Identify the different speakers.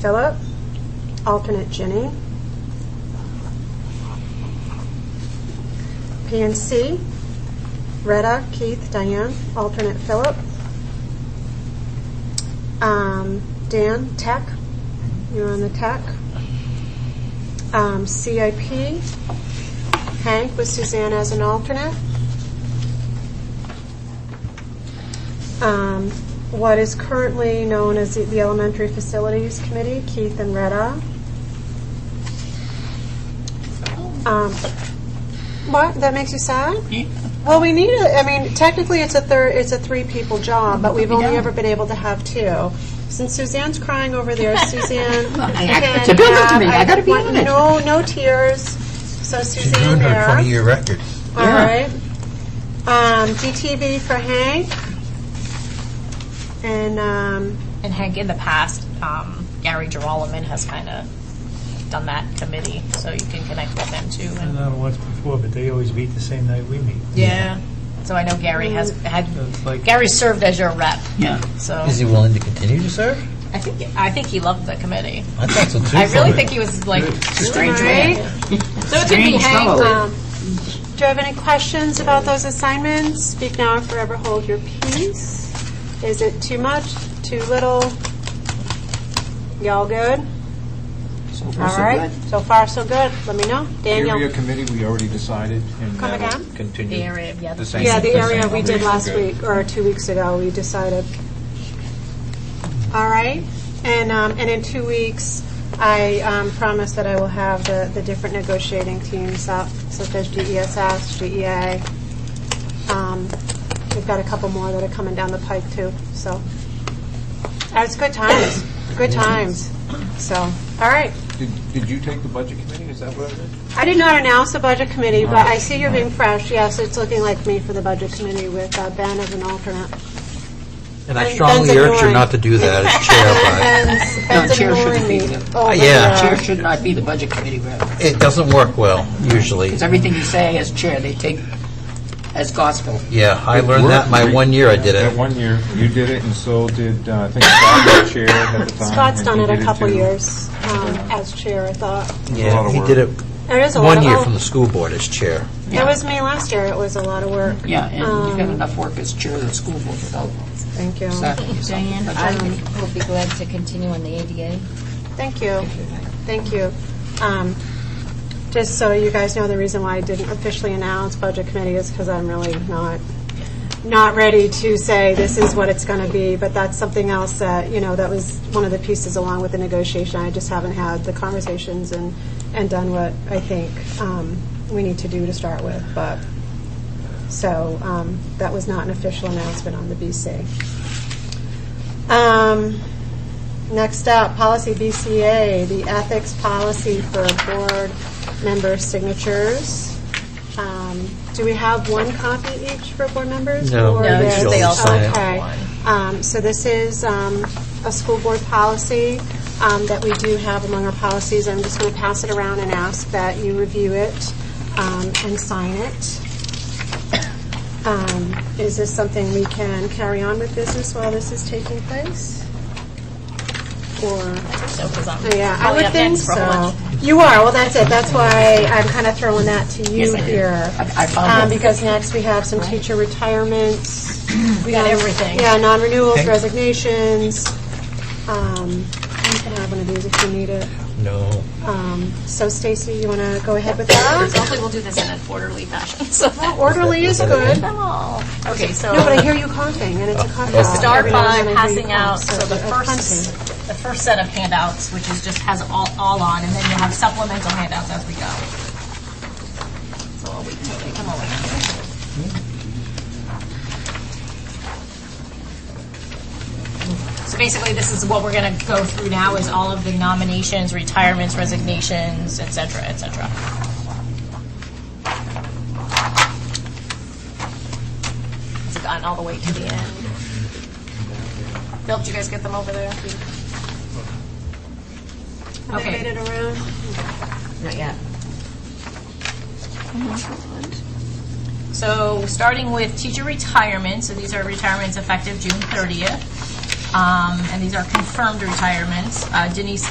Speaker 1: Philip. Alternate Jenny. PNC, Retta, Keith, Diane, alternate Philip. Um, Dan, Tech, you're on the Tech. Um, CIP, Hank with Suzanne as an alternate. Um, What is currently known as the- the Elementary Facilities Committee, Keith and Retta. Um, What, that makes you sad?
Speaker 2: Yeah.
Speaker 1: Well, we need a, I mean, technically it's a third, it's a three people job, but we've only
Speaker 2: Yeah.
Speaker 1: ever been able to have two. Since Suzanne's crying over there, Suzanne.
Speaker 2: I-
Speaker 1: can
Speaker 2: it's a buildup to
Speaker 1: uh, have-
Speaker 2: me. I gotta be
Speaker 1: want
Speaker 2: honest.
Speaker 1: No, no tears. So
Speaker 3: She's doing
Speaker 1: Suzanne
Speaker 3: her
Speaker 1: there.
Speaker 3: 20-year record.
Speaker 1: All
Speaker 2: Yeah.
Speaker 1: right. Um, GTV for Hank. And, um,
Speaker 4: And Hank, in the past, um, Gary Gerolman has kind of done that committee, so you can connect with them too.
Speaker 5: I've
Speaker 4: And
Speaker 5: done it once before, but they always meet the same night we meet.
Speaker 4: yeah, so I know Gary has had
Speaker 5: It's like-
Speaker 4: Gary served as your rep,
Speaker 2: Yeah.
Speaker 4: so
Speaker 3: Is he willing to continue to serve?
Speaker 4: I think I think he loved the committee.
Speaker 3: I thought so too.
Speaker 4: I really
Speaker 3: Philip.
Speaker 4: think he was like
Speaker 2: Strange
Speaker 1: all
Speaker 2: man.
Speaker 1: right. So it could be
Speaker 2: Strange
Speaker 1: Hank.
Speaker 2: fellow.
Speaker 4: uh,
Speaker 1: Um, do you have any questions about those assignments? Speak now or forever hold your peace. Is it too much? Too little? Y'all good?
Speaker 6: So
Speaker 1: All right. So far, so good. Let me know. Daniel?
Speaker 6: Area committee, we already decided, and
Speaker 1: Come
Speaker 6: that'll
Speaker 1: again?
Speaker 6: continue.
Speaker 4: the area, yeah,
Speaker 6: The
Speaker 4: the
Speaker 6: same.
Speaker 1: Yeah, the area
Speaker 6: same
Speaker 1: we did
Speaker 6: operation.
Speaker 1: last
Speaker 6: Good.
Speaker 1: week, or two weeks ago, we decided. All right, and, um, and in two weeks, I um, promise that I will have the, the different negotiating teams up, such as E GESS, GEA. Um, We've got a couple more that are coming down the pike too, so. Uh, It's good times, good times, so, all right.
Speaker 6: Did- Did you take the budget committee, is that what it is?
Speaker 1: I did not announce the budget committee, but I see you're being fresh. Yes, it's looking like me for the budget committee with uh, Ben as an alternate.
Speaker 7: And I
Speaker 1: And
Speaker 7: strongly
Speaker 1: Ben's
Speaker 7: urge you
Speaker 1: ignoring.
Speaker 7: not to do that
Speaker 1: Ben's,
Speaker 7: as chair,
Speaker 2: No,
Speaker 1: Ben's
Speaker 2: chair should
Speaker 1: ignoring
Speaker 2: be
Speaker 1: me.
Speaker 2: the-
Speaker 1: over
Speaker 7: Uh, yeah.
Speaker 1: there.
Speaker 2: Chair should not be the budget committee rep.
Speaker 7: but it doesn't work well, usually.
Speaker 2: It's everything you say as chair, they take as gospel.
Speaker 7: Yeah, I learned that my one year I did
Speaker 6: That
Speaker 7: it.
Speaker 6: one year, you did it, and so did, uh, I think Scott was chair at the time.
Speaker 1: Scott's
Speaker 6: and
Speaker 1: done
Speaker 6: he
Speaker 1: it a
Speaker 6: did
Speaker 1: couple
Speaker 6: too.
Speaker 1: years um, as chair, I thought.
Speaker 6: a lot
Speaker 7: Yeah,
Speaker 6: of
Speaker 7: he
Speaker 6: work.
Speaker 7: did it
Speaker 1: It is a lot
Speaker 7: one
Speaker 1: of
Speaker 7: year
Speaker 1: oh,
Speaker 7: from the school board as chair.
Speaker 1: It was me last year. It was a lot of work.
Speaker 2: Yeah, and you've got
Speaker 1: Um,
Speaker 2: enough work as chair of the school board without
Speaker 1: Thank you.
Speaker 2: staffing yourself.
Speaker 8: Diane, I will be glad to continue on the ADA.
Speaker 1: Thank you. Thank you. Um, Just so you guys know, the reason why I didn't officially announce Budget Committee is because I'm really not, not ready to say this is what it's going to be, but that's something else that, you know, that was one of the pieces along with the negotiation. I just haven't had the conversations and, and done what I think um, we need to do to start with, but, so um, that was not an official announcement on the BC. Um, Next up, policy BCA, the ethics policy for board member signatures. Um, Do we have one copy each for board members?
Speaker 7: No.
Speaker 1: Or
Speaker 7: No,
Speaker 1: there's-
Speaker 7: usually they all sign it.
Speaker 1: Okay. Um, So this is um, a school board policy um, that we do have among our policies. I'm just going to pass it around and ask that you review it um, and sign it. Um, Is this something we can carry on with business while this is taking place? Or?
Speaker 4: so because I'm
Speaker 1: Oh, Yeah, I
Speaker 4: probably
Speaker 1: would
Speaker 4: up
Speaker 1: think
Speaker 4: next for a whole
Speaker 1: so.
Speaker 4: bunch.
Speaker 1: You are, well, that's it, that's why I'm kind of throwing that to you
Speaker 2: Yes, I did.
Speaker 1: here.
Speaker 2: I- I
Speaker 1: Um,
Speaker 2: found it.
Speaker 1: Because next we have some teacher retirements.
Speaker 4: We got everything.
Speaker 1: Yeah, non-renewals,
Speaker 7: Okay.
Speaker 1: resignations. Um, You can have one of these if you need it.
Speaker 7: No.
Speaker 1: Um, So Stacy, you want to go ahead with that?
Speaker 4: Hopefully, we'll do this in an orderly fashion. So that
Speaker 1: Orderly is good.
Speaker 4: them all. Okay, so
Speaker 1: No, but I hear you coughing, and it's a cough.
Speaker 7: okay.
Speaker 4: start
Speaker 1: Every now
Speaker 4: by
Speaker 1: and then I hear you
Speaker 4: passing
Speaker 1: cough,
Speaker 4: out, so the
Speaker 1: uh,
Speaker 4: first,
Speaker 1: contact.
Speaker 4: the first set of handouts, which is just has all, all on, and then you'll have supplemental handouts as we go. So I'll wait till they come over. So basically, this is what we're going to go through now is all of the nominations, retirements, resignations, et cetera, et cetera. It's gotten all the way to the end. Bill, did you guys get them over there?
Speaker 1: Have they made
Speaker 4: Okay,
Speaker 1: it around?
Speaker 4: not yet. So, starting with teacher retirement, so these are retirements effective June 30th, um, and these are confirmed retirements. Uh, Denise